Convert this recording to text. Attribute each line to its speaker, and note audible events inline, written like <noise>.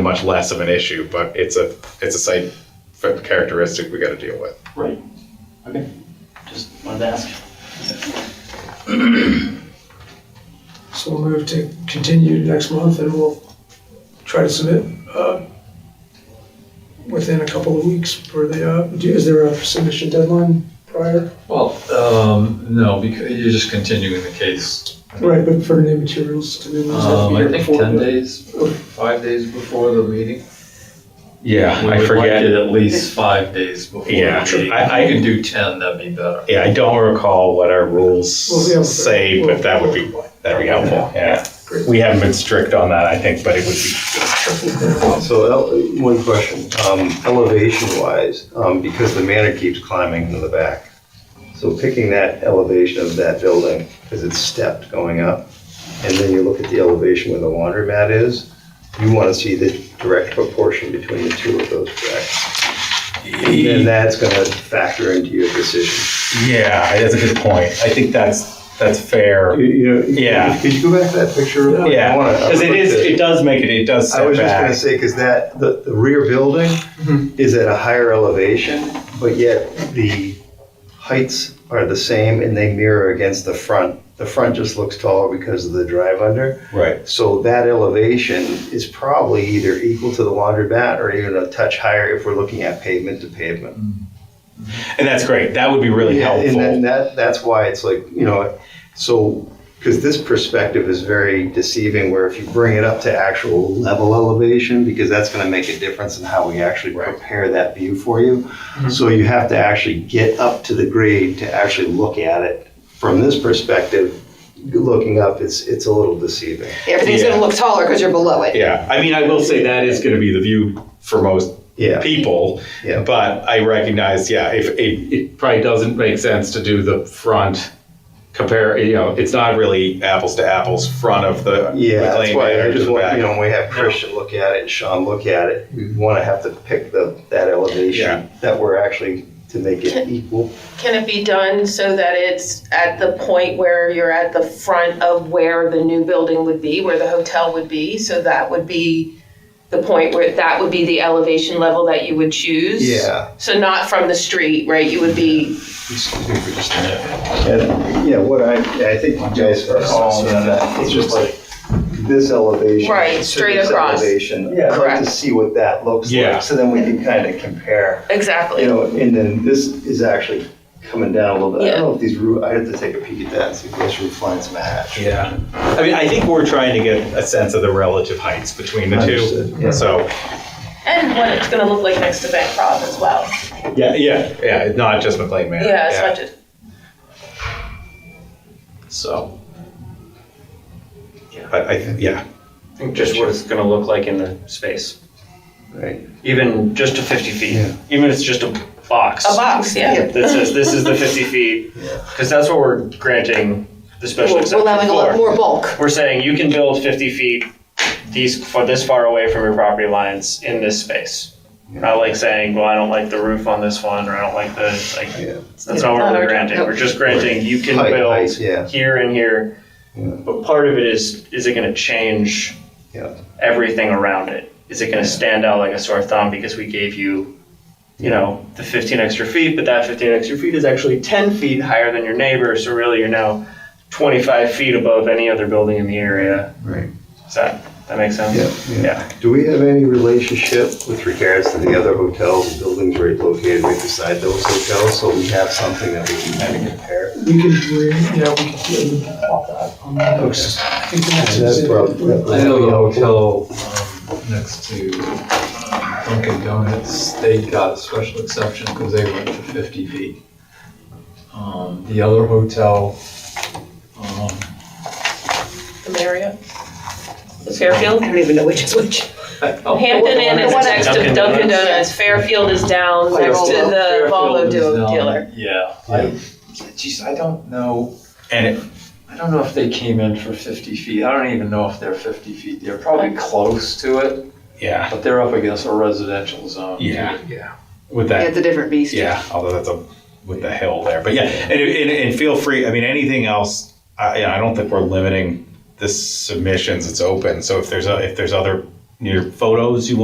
Speaker 1: much less of an issue, but it's a, it's a site characteristic we gotta deal with.
Speaker 2: Right. Okay. Just wanted to ask.
Speaker 3: So we'll move to continue next month and we'll try to submit, uh, within a couple of weeks for the, uh, do- is there a submission deadline prior?
Speaker 4: Well, um, no, because you're just continuing the case.
Speaker 3: Right, but for new materials to be. those have to
Speaker 4: Um,
Speaker 3: be
Speaker 4: I
Speaker 3: here
Speaker 4: think
Speaker 3: before
Speaker 4: ten
Speaker 3: the-
Speaker 4: days, five days before the meeting.
Speaker 1: Yeah,
Speaker 4: We would like it at least five days before the
Speaker 1: Yeah,
Speaker 4: meeting.
Speaker 1: I- I-
Speaker 4: If you can do ten, that'd be better.
Speaker 1: Yeah, I don't recall what our rules
Speaker 3: Well, yeah, but-
Speaker 1: say, but that would be, that'd be helpful, yeah.
Speaker 3: Great.
Speaker 1: We haven't been strict on that, I think, but it would be,
Speaker 5: So, ele- one question, um, elevation wise, um, because the manor keeps climbing to the back. So picking that elevation of that building, because it's stepped going up, and then you look at the elevation where the laundromat is, you want to see the direct proportion between the two of those, correct? And that's gonna factor into your decision.
Speaker 1: yeah, that's a good point. I think that's, that's fair.
Speaker 5: You- you know,
Speaker 1: Yeah.
Speaker 5: Could you go back to that picture? real quick? I
Speaker 1: Yeah,
Speaker 5: wanna- I
Speaker 1: because it
Speaker 5: wanna
Speaker 1: is,
Speaker 5: look at-
Speaker 1: it does make it, it does
Speaker 5: I
Speaker 1: set
Speaker 5: was just gonna
Speaker 1: back.
Speaker 5: say, because that, the, the rear building is at a higher elevation, but yet the heights are the same and they mirror against the front. The front just looks taller because of the drive under.
Speaker 1: Right.
Speaker 5: So that elevation is probably either equal to the laundromat or even a touch higher if we're looking at pavement to pavement.
Speaker 1: And that's great, that would be really
Speaker 5: Yeah, And
Speaker 1: helpful.
Speaker 5: then that, that's why it's like, you know, so, because this perspective is very deceiving, where if you bring it up to actual level elevation, because that's gonna make a difference in how we actually prepare that view for you.
Speaker 1: Mm-hmm.
Speaker 5: So you have to actually get up to the grade to actually look at it. From this perspective, looking up, it's, it's a little deceiving.
Speaker 6: Everything's
Speaker 1: Yeah.
Speaker 6: gonna look taller because you're below it.
Speaker 1: Yeah, I mean, I will say that is gonna be the view for most
Speaker 5: Yeah,
Speaker 1: people.
Speaker 5: Yeah.
Speaker 1: But I recognize, yeah, if it, it probably doesn't make sense to do the front compare, you know, it's not really apples to apples, front of the
Speaker 5: yeah, that's
Speaker 1: McLean
Speaker 5: why I
Speaker 1: Manor to
Speaker 5: just
Speaker 1: the
Speaker 5: want,
Speaker 1: back. Mm-hmm.
Speaker 5: you know, when we have Christian look at it and Sean look at it, we wanna have to pick the, that
Speaker 1: Yeah.
Speaker 5: elevation that we're actually, to make it equal.
Speaker 7: Can it be done so that it's at the point where you're at the front of where the new building would be, where the hotel would be? So that would be the point where that would be the elevation level that you would choose?
Speaker 5: Yeah.
Speaker 7: So not from the street, right? You would be,
Speaker 5: And, yeah, what I, I think you guys are all, it's just like this elevation.
Speaker 7: Right,
Speaker 5: to this
Speaker 7: straight across.
Speaker 5: Elevation, I'd like to
Speaker 7: Correct.
Speaker 5: see what that looks
Speaker 1: Yeah.
Speaker 5: like, so then we can kind of compare. You
Speaker 7: exactly.
Speaker 5: know, and then this is actually coming down a little bit, I don't know if these roof, I have to take a peek at that and see if those roof lines match.
Speaker 1: Yeah. I mean, I think we're trying to get a sense of the relative heights between the
Speaker 5: Understood, yeah.
Speaker 1: two. So,
Speaker 7: And what it's gonna look like next to Bancroft as well.
Speaker 1: yeah, yeah, yeah, it's not just McLean Manor.
Speaker 7: Yeah, it's not just,
Speaker 1: So. I, I, yeah,
Speaker 2: Just what it's gonna look like in the space,
Speaker 5: Right.
Speaker 2: even just to fifty feet,
Speaker 5: Yeah.
Speaker 2: even if it's just a box.
Speaker 7: a box, yeah.
Speaker 2: That says this is
Speaker 6: <laughs>
Speaker 2: the fifty feet, because that's what we're granting the special
Speaker 6: We're
Speaker 2: exception
Speaker 6: allowing a lot
Speaker 2: for.
Speaker 6: more bulk.
Speaker 2: We're saying you can build fifty feet these, for this far away from your property lines in this space. Not like saying, well, I don't like the roof on this one, or I don't like the, like,
Speaker 5: Yeah.
Speaker 2: that's not what
Speaker 6: Not
Speaker 2: we're
Speaker 6: our-
Speaker 2: granting,
Speaker 6: nope.
Speaker 2: we're just granting you can
Speaker 5: Height,
Speaker 2: build
Speaker 5: height, yeah.
Speaker 2: here and here.
Speaker 5: Yeah.
Speaker 2: But part of it is, is it gonna change
Speaker 5: Yeah.
Speaker 2: everything around it? Is it gonna stand out like a sore thumb because we gave you, you know, the fifteen extra feet, but that fifteen extra feet is actually ten feet higher than your neighbor, so really you're now twenty-five feet above any other building in the area.
Speaker 5: Right.
Speaker 2: Does that, that make sense?
Speaker 5: Yeah, yeah.
Speaker 2: Yeah.
Speaker 5: Do we have any relationship with regards to the other hotels and buildings right located right beside those hotels, so we have something that we can kind of compare?
Speaker 3: We can, re- yeah, we can. I think the next
Speaker 5: That's
Speaker 3: is-
Speaker 5: probably- that-
Speaker 4: I know the hotel um, next to Dunkin' Donuts, they got a special exception because they went to fifty feet. Um, The other hotel, um, <laughs>
Speaker 7: The Marriott. The Fairfield.
Speaker 6: I don't even know which is which.
Speaker 4: Oh,
Speaker 7: Hampton Inn is
Speaker 6: The one
Speaker 7: next to
Speaker 2: Dunkin'
Speaker 7: Dunkin'
Speaker 2: Donuts.
Speaker 7: Donuts. Fairfield is down
Speaker 6: Like
Speaker 7: next to
Speaker 6: Volvo.
Speaker 7: the Volvo
Speaker 4: Fairfield is
Speaker 7: deal-
Speaker 4: down-
Speaker 7: dealer.
Speaker 4: Yeah, I, geez, I don't know,
Speaker 1: and it,
Speaker 4: I don't know if they came in for fifty feet, I don't even know if they're fifty feet, they're probably close to it,
Speaker 1: yeah,
Speaker 4: but they're up against a residential zone. too.
Speaker 1: yeah, yeah. With that,
Speaker 6: Yeah, it's a different beast.
Speaker 1: Yeah, although that's a with the hill there, but yeah, and, and, and feel free. I mean, anything else? I, you know, I don't think we're limiting the submissions. It's open. So if there's a, if there's other your photos you want